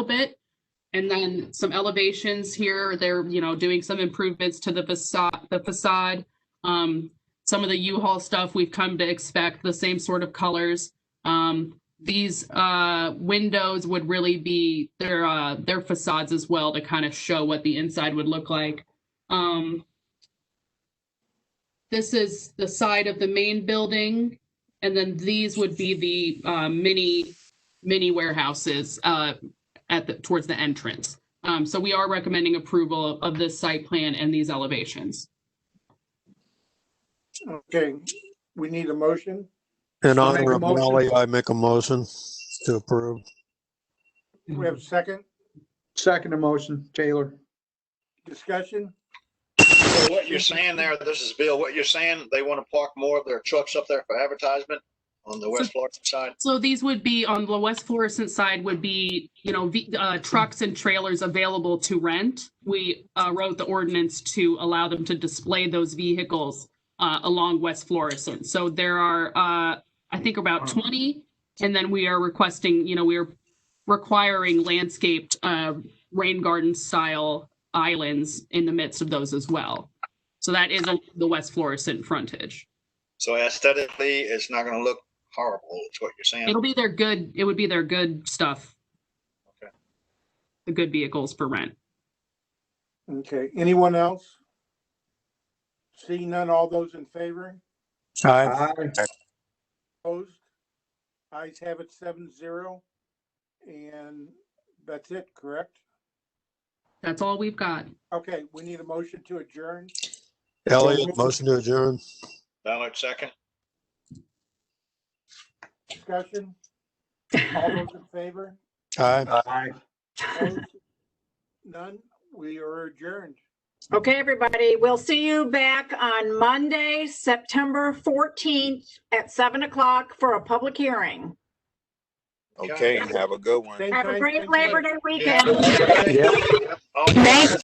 little bit. And then some elevations here, they're, you know, doing some improvements to the facade, the facade. Um, some of the U-Haul stuff, we've come to expect the same sort of colors. Um, these, uh, windows would really be their, uh, their facades as well to kind of show what the inside would look like. Um, this is the side of the main building. And then these would be the, uh, mini, mini warehouses, uh, at the, towards the entrance. Um, so we are recommending approval of this site plan and these elevations. Okay, we need a motion. So In make a honor of motion. Molly, I make a motion to approve. We have a second Second motion, Taylor. discussion. So what you're saying there, this is Bill, what you're saying, they want to park more of their trucks up there for advertisement on the West Florida side? So these would be on the West Florissant side would be, you know, ve- uh, trucks and trailers available to rent. We uh, wrote the ordinance to allow them to display those vehicles uh, along West Florissant. So there are, uh, I think, about 20. And then we are requesting, you know, we are requiring landscaped uh, rain garden style islands in the midst of those as well. So that is along the West Florissant frontage. So aesthetically, it's not going to look horrible, is what you're saying. It'll be their good, it would be their good stuff. Okay. The good vehicles for rent. Okay, anyone else? Seeing none, all those in favor, Aye. Aye. opposed? Eyes have it seven zero. And that's it, correct? That's all we've got. Okay, we need a motion to adjourn. Elliot, motion to adjourn. Ballard second. Discussion. All those in favor? Aye. Aye. Opposed? None, we are adjourned. Okay, everybody, we'll see you back on Monday, September 14th at 7 o'clock for a public hearing. Okay, have a good one. Same Have a time, great same place. Labor Day weekend. Yeah. Oh,